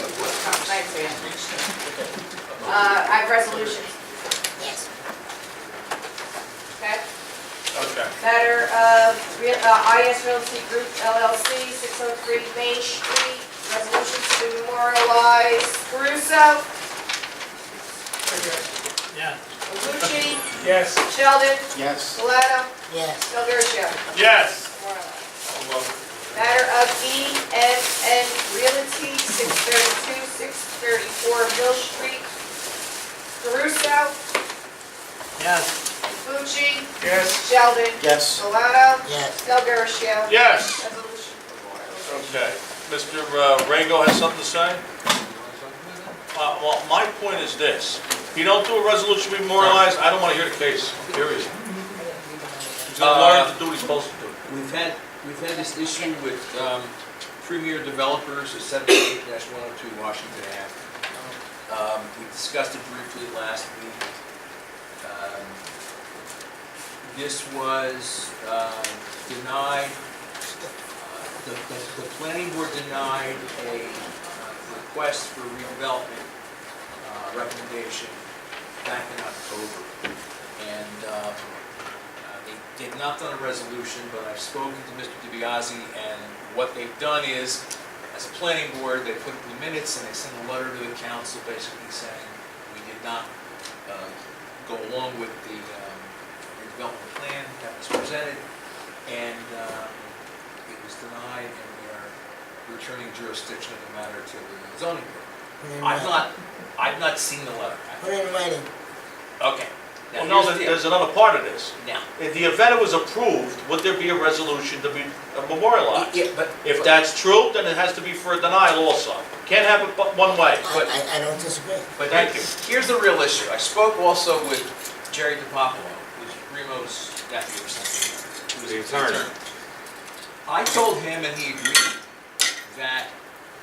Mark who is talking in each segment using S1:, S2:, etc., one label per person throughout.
S1: something nice here. Uh, I have resolutions,
S2: Yes.
S1: okay?
S3: Okay.
S1: Matter of Real- uh, IS Realty Group LLC, 603 Main Street, resolution to memorialize Caruso,
S4: Yeah.
S1: Lucci,
S3: Yes.
S1: Sheldon,
S5: Yes.
S1: Valado,
S2: Yes.
S1: Del Garcia.
S3: Yes.
S1: Memorialize.
S3: I love
S1: Matter of ENN Realty, 632, 634 Mill Street. Caruso,
S4: Yes.
S1: Fucci,
S3: it. Yes.
S1: Sheldon,
S5: Yes.
S1: Solano,
S2: Yes.
S1: Del Garcia.
S3: Yes.
S1: Resolution memorialized.
S3: Okay. Mr. uh, Rego has something to say? Uh, well, my point is this. If you don't do a resolution memorialized, I don't want to hear the case, period. He's
S6: Uh,
S3: gonna learn to do what he's supposed to do.
S6: We've had, we've had this issue with um, Premier Developers at 78-102 Washington Ave. Um, We discussed it briefly last week. Um, This was um, denied, uh, the, the- the planning board denied a uh, request for redevelopment uh, recommendation back in October. And um, uh, They they've not done a resolution, but I've spoken to Mr. DiBiase, and what they've done is, as a planning board, they put it in the minutes, and they sent a letter to the council basically saying, we did not uh, go along with the um, redevelopment plan that was presented, and um, it was denied, and we are returning jurisdiction of the matter to the zoning board.
S2: Put it in
S6: I've
S2: writing.
S6: not, I've not seen the letter.
S2: Put it in writing.
S6: Okay.
S3: Well,
S6: Now,
S3: no,
S6: here's the
S3: there-
S6: deal.
S3: there's another part of this.
S6: Now,
S3: If the event was approved, would there be a resolution to be uh, memorialized?
S6: yeah, but.
S3: If that's true, then it has to be for a denial also. Can't have it but one way.
S6: But-
S2: I, I, I don't disagree.
S6: But
S3: Thank
S6: here- Here's the real issue. I spoke also with Jerry DiPapolo, who's Remo's nephew or something. who's
S3: The attorney.
S6: I told him, and he agreed, that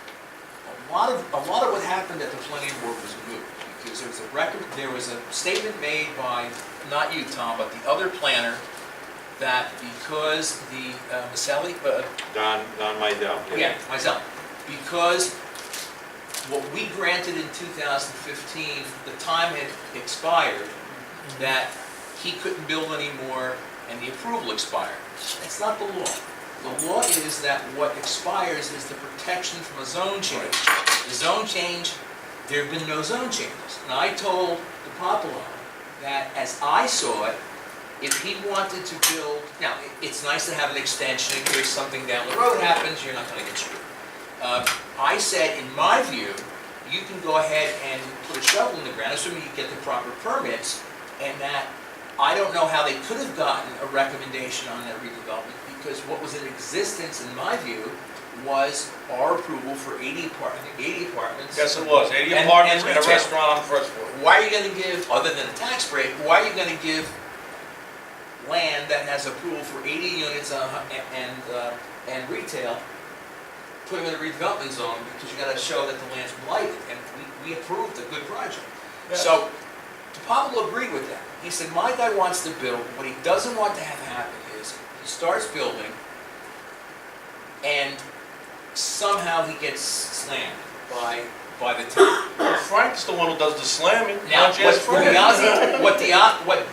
S6: a lot of, a lot of what happened at the planning board was moot. Because there was a record, there was a statement made by, not you, Tom, but the other planner, that because the uh, Maselli, uh,
S7: Don, Don Mydell.
S6: yeah, myself, because what we granted in 2015, the time had expired, that he couldn't build anymore, and the approval expired. That's not the law. The law is that what expires is the protection from a zone change. The zone change, there have been no zone changes. And I told DiPapolo that as I saw it, if he wanted to build, now, it- it's nice to have an extension in case something down the road happens, you're not gonna get screwed. Uh, I said, in my view, you can go ahead and put a shovel in the ground, assuming you get the proper permits, and that, I don't know how they could have gotten a recommendation on that redevelopment, because what was in existence, in my view, was our approval for eighty apart, I think eighty apartments.
S3: Yes, it was. 80
S6: And-
S3: apartments
S6: and
S3: and a
S6: retail.
S3: restaurant on the first floor.
S6: Why are you gonna give, other than a tax break, why are you gonna give land that has approval for eighty units uh, and, and, uh, and retail, put them in a redevelopment zone, because you gotta show that the land's blighted, and we, we approved a good project. So, Pablo agreed with that. He said, my guy wants to build, what he doesn't want to have happen is, he starts building, and somehow he gets slammed by, by the town.
S3: Frank's the one who does the slamming. Why
S6: Now,
S3: don't you
S6: what
S3: ask Frank?
S6: DiBiase, what Dia, what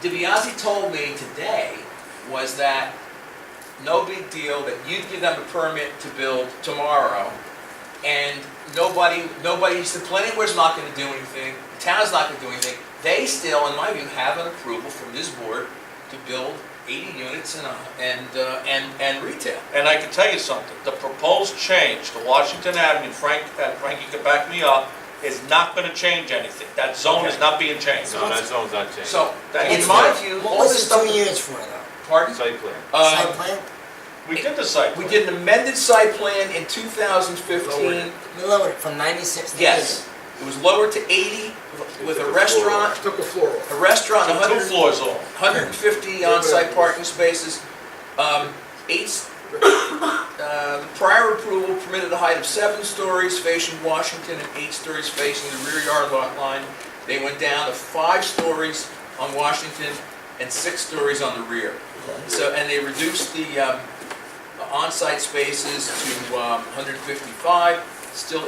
S6: DiBiase told me today was that no big deal, that you'd give them a permit to build tomorrow, and nobody, nobody's, the planning board's not gonna do anything, the town's not gonna do anything. They still, in my view, have an approval from this board to build eighty units and, uh, and, uh, and, and retail.
S3: And I can tell you something, the proposed change to Washington Avenue, Frank, uh, Frankie can back me up, is not gonna change anything. That zone is not being changed.
S7: No, that zone's not changed.
S6: So,
S3: That
S6: in
S3: is
S6: my
S3: correct.
S6: view,
S2: What
S6: all
S2: was
S6: this
S2: it two
S6: stuff,
S2: years for though?
S6: pardon?
S7: Site plan.
S6: Uh,
S2: Site plan?
S3: We did the site
S6: We
S3: plan.
S6: did an amended site plan in 2015.
S2: We lowered it from ninety-six to eighty.
S6: Yes, it was lowered to 80 with a restaurant,
S8: Took a floor off.
S6: a restaurant,
S3: Took Two
S6: 100
S3: floors off.
S6: 150 on-site parking spaces, um, eight, s- uh, the prior approval permitted a height of seven stories facing Washington and eight stories facing the rear yard lot line. They went down to five stories on Washington and six stories on the rear. So, and they reduced the um, on-site spaces to um, 155, still